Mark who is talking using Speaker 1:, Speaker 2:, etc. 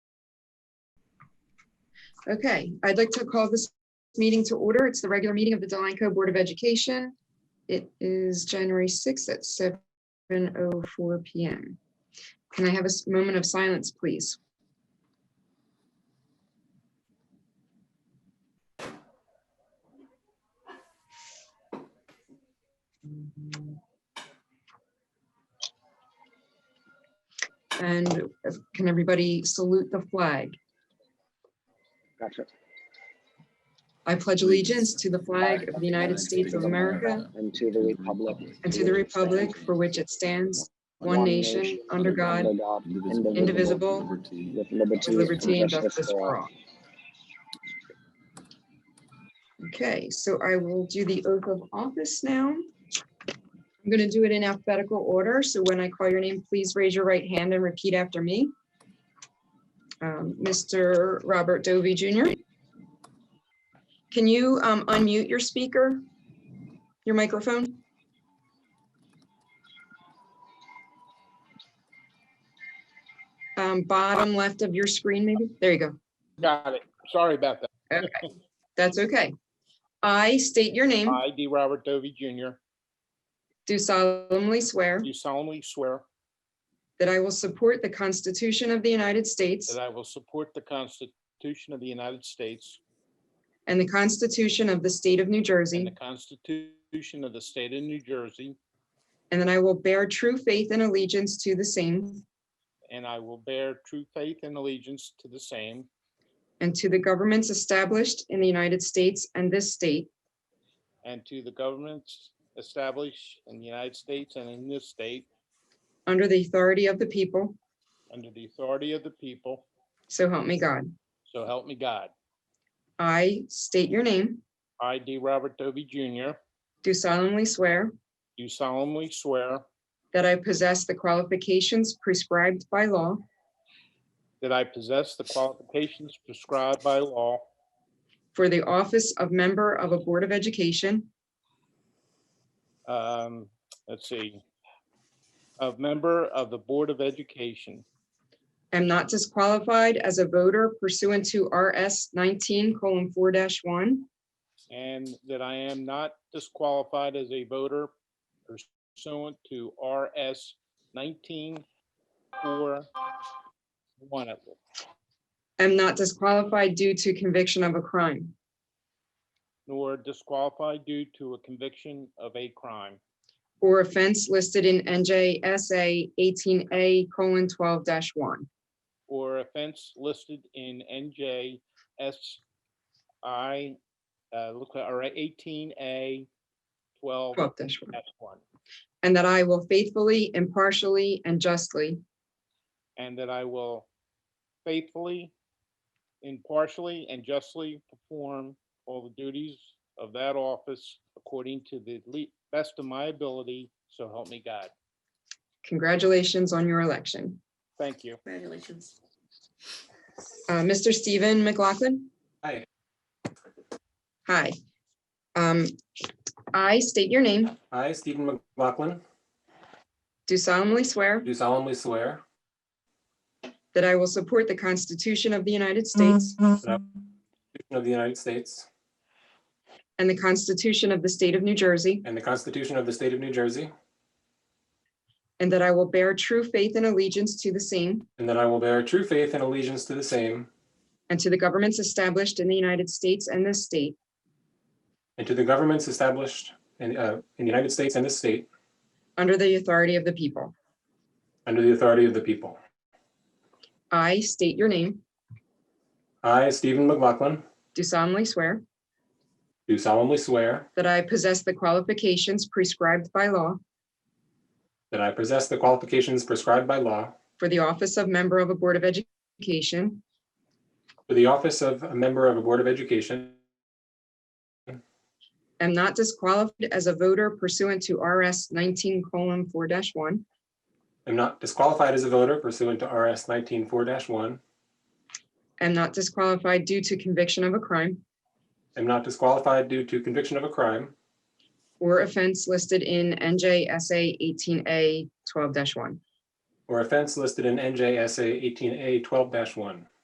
Speaker 1: Okay, I'd like to call this meeting to order. It's the regular meeting of the Delanco Board of Education. It is January 6th at 7:04 PM. Can I have a s- moment of silence, please? And uh, can everybody salute the flag?
Speaker 2: Gotcha.
Speaker 1: I pledge allegiance to the flag of the United States of America
Speaker 2: And to the republic.
Speaker 1: and to the republic for which it stands, one nation, under God,
Speaker 2: under God,
Speaker 1: indivisible,
Speaker 2: with liberty.
Speaker 1: with liberty and justice
Speaker 2: all.
Speaker 1: for all. Okay, so I will do the oath of office now. I'm going to do it in alphabetical order, so when I call your name, please raise your right hand and repeat after me. Um, Mr. Robert Dovey Jr. Can you um, unmute your speaker? Your microphone? Um, Bottom left of your screen, maybe? There you go.
Speaker 3: Got it. Sorry about that.
Speaker 1: That's okay. I state your name,
Speaker 3: I, D. Robert Dovey Jr.,
Speaker 1: do solemnly swear
Speaker 3: do solemnly swear
Speaker 1: that I will support the Constitution of the United States
Speaker 3: that I will support the Constitution of the United States
Speaker 1: and the Constitution of the State of New
Speaker 3: and the
Speaker 1: Jersey,
Speaker 3: Constitution of the State of New Jersey,
Speaker 1: and that I will bear true faith and allegiance to the same
Speaker 3: and I will bear true faith and allegiance to the same
Speaker 1: and to the governments established in the United States and this state
Speaker 3: and to the governments established in the United States and in this state
Speaker 1: under the authority of the people,
Speaker 3: under the authority of the people,
Speaker 1: so help me God.
Speaker 3: so help me God.
Speaker 1: I state your name,
Speaker 3: I, D. Robert Dovey Jr.,
Speaker 1: do solemnly swear
Speaker 3: do solemnly swear
Speaker 1: that I possess the qualifications prescribed by law
Speaker 3: that I possess the qualifications prescribed by law
Speaker 1: for the office of member of a Board of Education
Speaker 3: um, let's see, a member of the Board of Education,
Speaker 1: am not disqualified as a voter pursuant to RS nineteen colon four one
Speaker 3: and that I am not disqualified as a voter pursuant to RS nineteen four one.
Speaker 1: am not disqualified due to conviction of a crime,
Speaker 3: Nor disqualified due to a conviction of a crime
Speaker 1: or offense listed in NJSA eighteen A colon twelve one,
Speaker 3: or offense listed in NJSI, uh, look, or eighteen A twelve
Speaker 1: twelve one.
Speaker 3: one.
Speaker 1: And that I will faithfully, impartially, and justly
Speaker 3: And that I will faithfully, impartially, and justly perform all the duties of that office according to the le- best of my ability, so help me God.
Speaker 1: congratulations on your election.
Speaker 3: Thank you.
Speaker 4: Congratulations.
Speaker 1: Uh, Mr. Stephen McLaughlin?
Speaker 5: Hi.
Speaker 1: Hi. Um, I state your name,
Speaker 5: I, Stephen McLaughlin,
Speaker 1: do solemnly swear
Speaker 5: do solemnly swear
Speaker 1: that I will support the Constitution of the United States
Speaker 5: Constitution of the United States
Speaker 1: and the Constitution of the State of New Jersey,
Speaker 5: and the Constitution of the State of New Jersey,
Speaker 1: and that I will bear true faith and allegiance to the same
Speaker 5: and that I will bear true faith and allegiance to the same
Speaker 1: and to the governments established in the United States and this state
Speaker 5: and to the governments established in, uh, in the United States and this state
Speaker 1: under the authority of the people.
Speaker 5: under the authority of the people.
Speaker 1: I state your name,
Speaker 5: I, Stephen McLaughlin,
Speaker 1: do solemnly swear
Speaker 5: do solemnly swear
Speaker 1: that I possess the qualifications prescribed by law
Speaker 5: that I possess the qualifications prescribed by law
Speaker 1: for the office of member of a Board of Education
Speaker 5: for the office of a member of a Board of Education,
Speaker 1: am not disqualified as a voter pursuant to RS nineteen colon four one,
Speaker 5: am not disqualified as a voter pursuant to RS 19-4-1,
Speaker 1: am not disqualified due to conviction of a crime
Speaker 5: am not disqualified due to conviction of a crime,
Speaker 1: or offense listed in NJSA eighteen A twelve one.
Speaker 5: or offense listed in NJSA 18A 12-1.